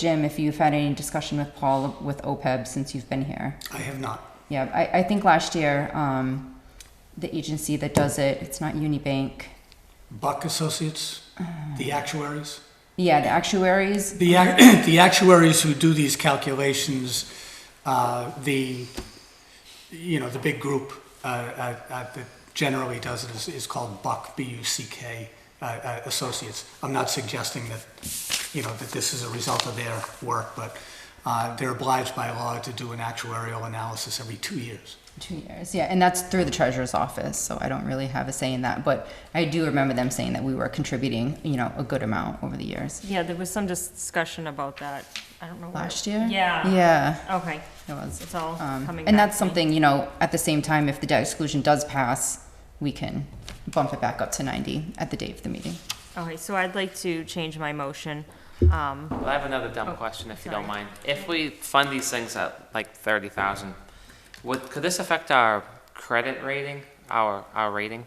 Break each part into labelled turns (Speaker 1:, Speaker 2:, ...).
Speaker 1: Jim, if you've had any discussion with Paul with OPEB since you've been here.
Speaker 2: I have not.
Speaker 1: Yeah, I, I think last year, um, the agency that does it, it's not Unibank.
Speaker 2: Buck Associates, the actuaries.
Speaker 1: Yeah, the actuaries,
Speaker 2: The, ac- the actuaries who do these calculations, uh, the, you know, the big group uh, uh, uh, that generally does it is, is called Buck, B-U-C-K, uh, uh, Associates. I'm not suggesting that, you know, that this is a result of their work, but uh, they're obliged by law to do an actuarial analysis every two years.
Speaker 1: two years, yeah, and that's through the treasurer's office, so I don't really have a say in that, but I do remember them saying that we were contributing, you know, a good amount over the years.
Speaker 3: Yeah, there was some discussion about that. I don't know. where-
Speaker 1: Last year?
Speaker 3: Yeah.
Speaker 1: Yeah.
Speaker 3: Okay.
Speaker 1: It was.
Speaker 3: It's all
Speaker 1: Um,
Speaker 3: coming
Speaker 1: And
Speaker 3: back
Speaker 1: that's
Speaker 3: to me.
Speaker 1: something, you know, at the same time, if the debt exclusion does pass, we can bump it back up to 90 at the date of the meeting.
Speaker 3: Okay, so I'd like to change my motion. Um,
Speaker 4: Well, I have another dumb
Speaker 3: Oh,
Speaker 4: question, if you don't
Speaker 3: sorry.
Speaker 4: mind. If we fund these things at like thirty thousand, would, could this affect our credit rating, our, our rating?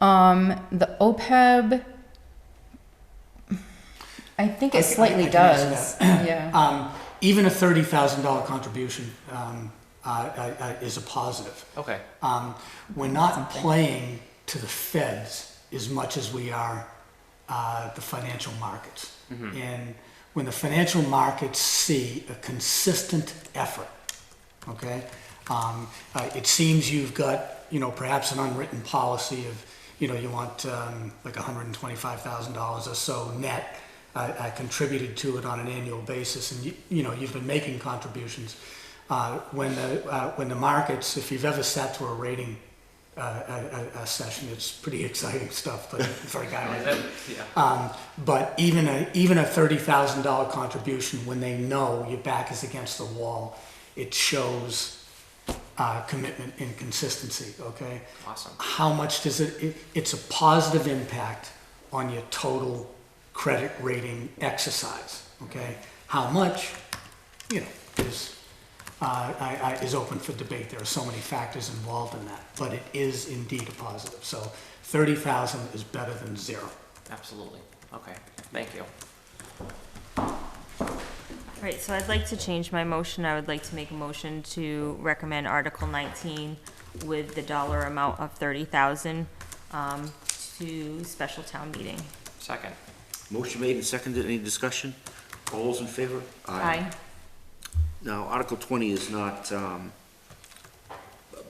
Speaker 1: Um, the OPEB, I think
Speaker 2: I
Speaker 1: it
Speaker 2: can- I-
Speaker 1: slightly
Speaker 2: I can answer
Speaker 1: does, yeah.
Speaker 2: Um, Even a $30,000 contribution um, uh, uh, uh, is a positive.
Speaker 4: Okay,
Speaker 2: Um, we're not playing to the feds as much as we are uh, the financial markets. And when the financial markets see a consistent effort, okay, um, uh, it seems you've got, you know, perhaps an unwritten policy of, you know, you want um, like $125,000 or so net. I, I contributed to it on an annual basis, and you, you know you've been making contributions. Uh, when the uh, when the markets, if you've ever sat to a rating uh, a, a, a session, it's pretty exciting stuff. But for a guy like me, um, but even a even a thirty thousand dollar contribution, when they know your back is against the wall, it shows uh, commitment and consistency. Okay,
Speaker 4: awesome.
Speaker 2: how much does it, it? It's a positive impact on your total credit rating exercise. Okay, how much? You know, is uh, I, I, is open for debate. There are so many factors involved in that, but it is indeed a positive. So thirty thousand is better than zero.
Speaker 4: Absolutely. Okay, thank you.
Speaker 3: Right, so I'd like to change my motion. I would like to make a motion to recommend Article 19 with the dollar amount of 30,000 um, to special town meeting.
Speaker 4: Second.
Speaker 5: Motion made and seconded, any discussion? All those in favor?
Speaker 3: Aye.
Speaker 5: Now, Article twenty is not, um,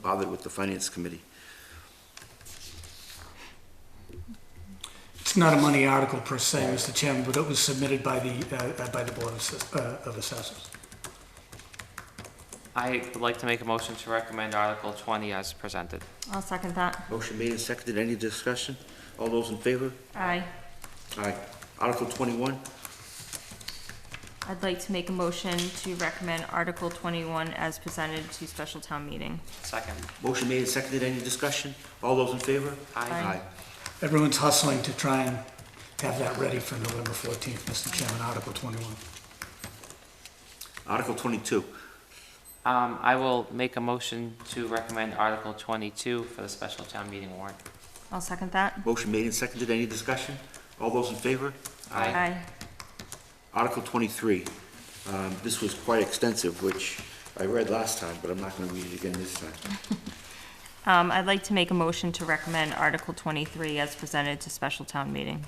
Speaker 5: bothered with the Finance Committee.
Speaker 2: It's not a money article per se, Mr. Chairman, but it was submitted by the, uh, uh, by the Board of Assess- uh, of Assessors.
Speaker 4: I would like to make a motion to recommend Article twenty as presented.
Speaker 3: I'll second that.
Speaker 5: Motion made and seconded, any discussion? All those in favor?
Speaker 3: Aye.
Speaker 5: Aye. Article twenty-one,
Speaker 3: I'd like to make a motion to recommend Article 21 as presented to special town meeting.
Speaker 4: Second.
Speaker 5: motion made and seconded, any discussion? All those in favor?
Speaker 4: Aye.
Speaker 2: Everyone's hustling to try and have that ready for November 14th, Mr. Chairman, Article 21.
Speaker 5: Article twenty-two,
Speaker 4: Um, I will make a motion to recommend Article twenty-two for the special town meeting warrant.
Speaker 3: I'll second that.
Speaker 5: motion made and seconded, any discussion? All those in favor?
Speaker 3: Aye.
Speaker 5: Article twenty-three, um, this was quite extensive, which I read last time, but I'm not gonna read it again this time.
Speaker 3: Um, I'd like to make a motion to recommend Article 23 as presented to special town meeting.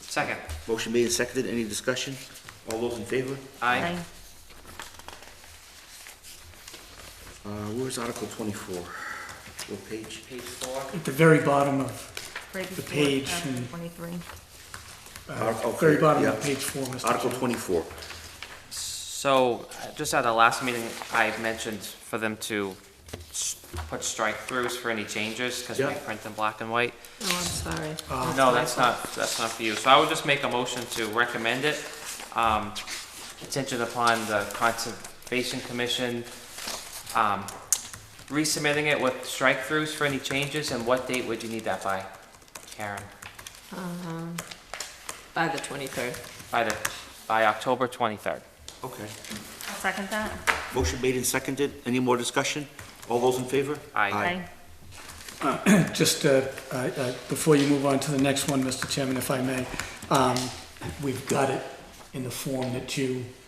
Speaker 4: Second.
Speaker 5: Motion made and seconded, any discussion? All those in favor?
Speaker 4: Aye.
Speaker 5: Uh, where's Article twenty-four? What page?
Speaker 4: Page four.
Speaker 2: At the very bottom of,
Speaker 3: Right
Speaker 2: The
Speaker 3: before
Speaker 2: page
Speaker 3: Article
Speaker 2: and-
Speaker 3: 23.
Speaker 2: uh,
Speaker 5: Article-
Speaker 2: very bottom of
Speaker 5: oh, yeah.
Speaker 2: page four, Mr.
Speaker 5: Article
Speaker 2: Chairman.
Speaker 5: twenty-four.
Speaker 4: So, uh, just at the last meeting, I mentioned for them to s- put strike throughs for any changes, because we
Speaker 5: Yeah.
Speaker 4: print them black and white.
Speaker 3: Oh, I'm sorry.
Speaker 4: No, that's not, that's not for you. So I would just make a motion to recommend it, um, contingent upon the Conservation Commission, um, resubmitting it with strike throughs for any changes, and what date would you need that by, Karen?
Speaker 6: Um, By the 23rd.
Speaker 4: By the, by October twenty-third.
Speaker 5: Okay.
Speaker 3: I'll second that.
Speaker 5: Motion made and seconded. Any more discussion? All those in favor?
Speaker 4: Aye.
Speaker 3: Aye.
Speaker 2: Just, uh, uh, uh, before you move on to the next one, Mr. Chairman, if I may, um, we've got it in the form that you